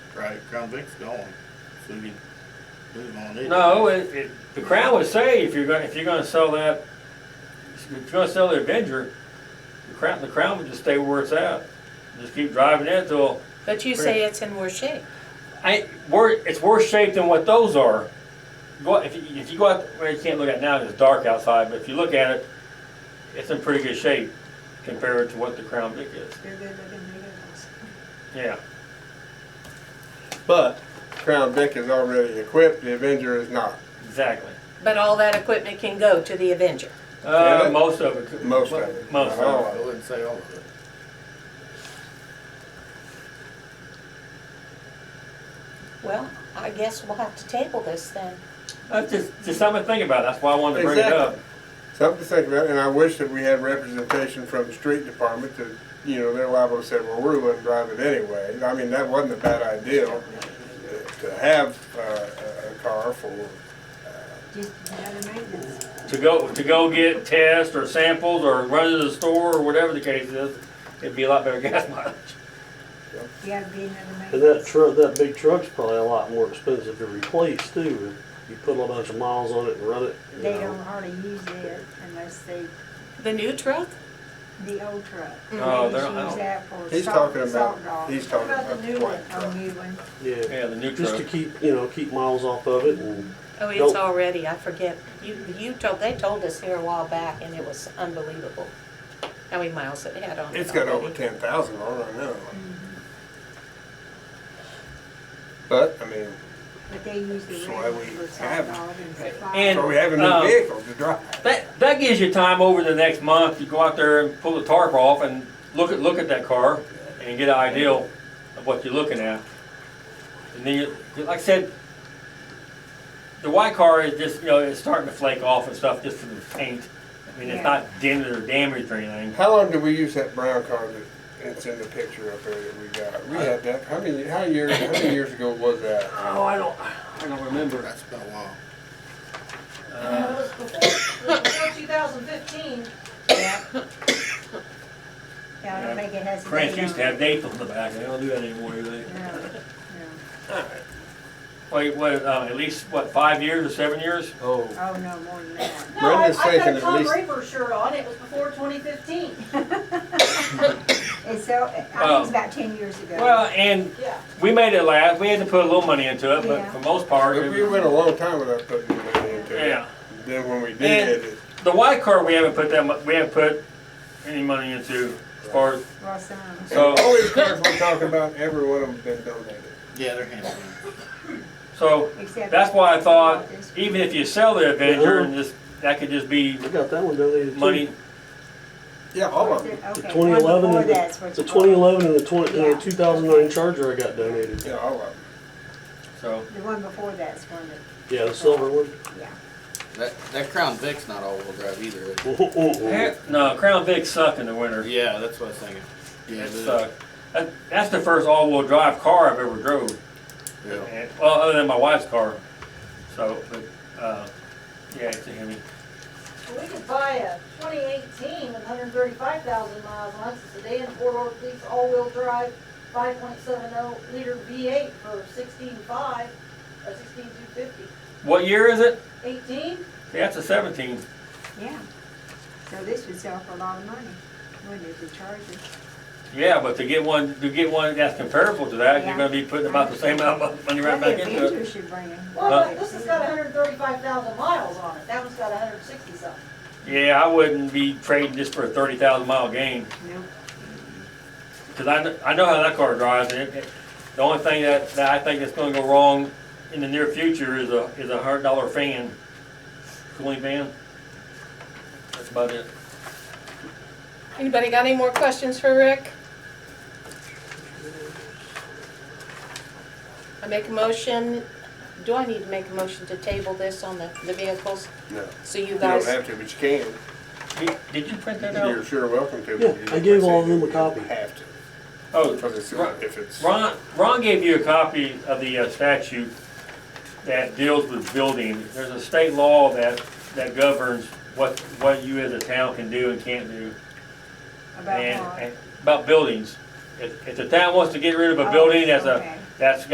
Right, Crown Vic's gone, so we can move on it. No, it, it, the Crown would say if you're gonna, if you're gonna sell that, if you're gonna sell the Avenger, the Crown, the Crown would just stay where it's at. Just keep driving it till, But you say it's in worse shape. I, wor it's worse shape than what those are. Go, out- if you, if you go out, well, you can't look at it now, 'cause it's dark outside, but if you look at it, it's in pretty good shape compared to what the Crown Vic is, They're good looking vehicles. yeah. But Crown Vic is already equipped, the Avenger is not. Exactly. But all that equipment can go to the Avenger. Uh, Yeah. most of it. could- Most of it. Most of Not all it. Oh, I wouldn't say all of it. Well, I guess we'll have to table this then. That's just, just something to think about, that's why I wanted to bring it up. Something to think about, and I wish that we had representation from the street department that, you know, they're liable to say, well, we're going to drive it anyway. I mean, that wasn't a bad idea uh, to have uh, a a car for, Just another maintenance. to go, to go get tests or samples or run to the store or whatever the case is, it'd be a lot better gas mileage. Yeah, it'd be another And that maintenance. truck, that big truck's probably a lot more expensive to replace too. You put a bunch of miles on it and run it, you They don't know. hardly use it unless they, The new truck? the old truck. Oh, They they're- just I use don't- that for He's salt- talking about- salt dog. he's What talking about the the new one, white oh, truck. new one. Yeah, Yeah, the new just truck. to keep, you know, keep miles off of it and, Oh, it's Nope. already, I forget. You, you told, they told us here a while back and it was unbelievable how many miles it had on it it's got over already. ten thousand on it, I know. But, I mean, But they use the So I red one would for have- salt dog and for flour. And- so we have a new um, vehicle to drive. That, that gives you time over the next month, you go out there and pull the tarp off and look at, look at that car and get an idea of what you're looking at. And then, you- like I said, the white car is just, you know, it's starting to flake off and stuff just from the paint. I mean, it's Yeah. not dented or damaged or anything. How long did we use that brown car that, that's in the picture up there that we got? We had that, how many, how years, how many years ago was that? Oh, I don't, I don't remember. That's been a while. It was before, it was before 2015. Yeah. Yeah, I don't think it has. a France date used to on have dates on the back, they don't do that anymore, do they? it. No, no. Wait, what, uh, at least, what, five years or seven years? Oh, Oh, no, more than that. No, I- Brenda's I've got thinking a at Tom least- Draper shirt on, it was before 2015, It's so, I think Well- it's about ten years ago. Well, and yeah. we made it last, we had to put a little money into it, but Yeah. for most part, but we it- went a long time without putting money into it. yeah. Then when we And- did, it, The white car, we haven't put that mu, we haven't put any money into, as far as, Well, some. so, all these cars we're talking about, every one of them been donated. Yeah, they're handling so, Except- that's why I thought, even if you sell the Avenger Yeah. and just, that could just be we got that one donated too. money, Yeah, all of them. The Okay, one 2011 before and the- that's what's The called. twenty eleven and the twenty, Yeah. uh, two thousand nine Charger I got donated. Yeah, all of them. so. The one before that's one that, Yeah, the silver one. That, that Crown Vic's not all-wheel drive either. is Eh, No, Crown Vic suck in the winter. it? Yeah, that's what I was thinking. Yeah, It it is. sucked. That, that's the first all-wheel drive car I've ever drove. Yeah. And, well, other than my wife's car. So, but, uh, yeah, it's a Hemi. Well, We could buy a 2018 with 135,000 miles on it, it's a sedan, four-door police, all-wheel drive, 5.70 liter V8 for 16.5, or 16,250. What year is it? 18? See, that's a seventeen. yeah. So this would sell for a lot of money, wouldn't it, the Charger? Yeah, but to get one, to get one that's comparable to that, Yeah. you're gonna be putting about the same amount of money right back Maybe into it. Uh, Avenger should bring in. Well, look, this has got 135,000 miles on it, that one's got 160 something. Yeah, I wouldn't be trading this for a thirty thousand mile gain, Nope. cause I, kn- I know how that car drives, and it, it- the only thing that, that I think that's gonna go wrong in the near future is a, is a hundred dollar fan, cooling fan. That's about it. Anybody got any more questions for Rick? I make a motion, do I need to make a motion to table this on the, the vehicles? No, So you you don't guys, have to, but you can. Did- Did you print that You're out? sure welcome to. but Yeah, you just I gave all of said them a copy. You have to, Oh, because it's, Ron- if it's, Ron, Ron gave you a copy of the uh, statute that deals with building. There's a state law that, that governs what, what you as a town can do and can't do. About and what? and About buildings. If, if the town wants to get rid of a Oh, building that's a, okay. that's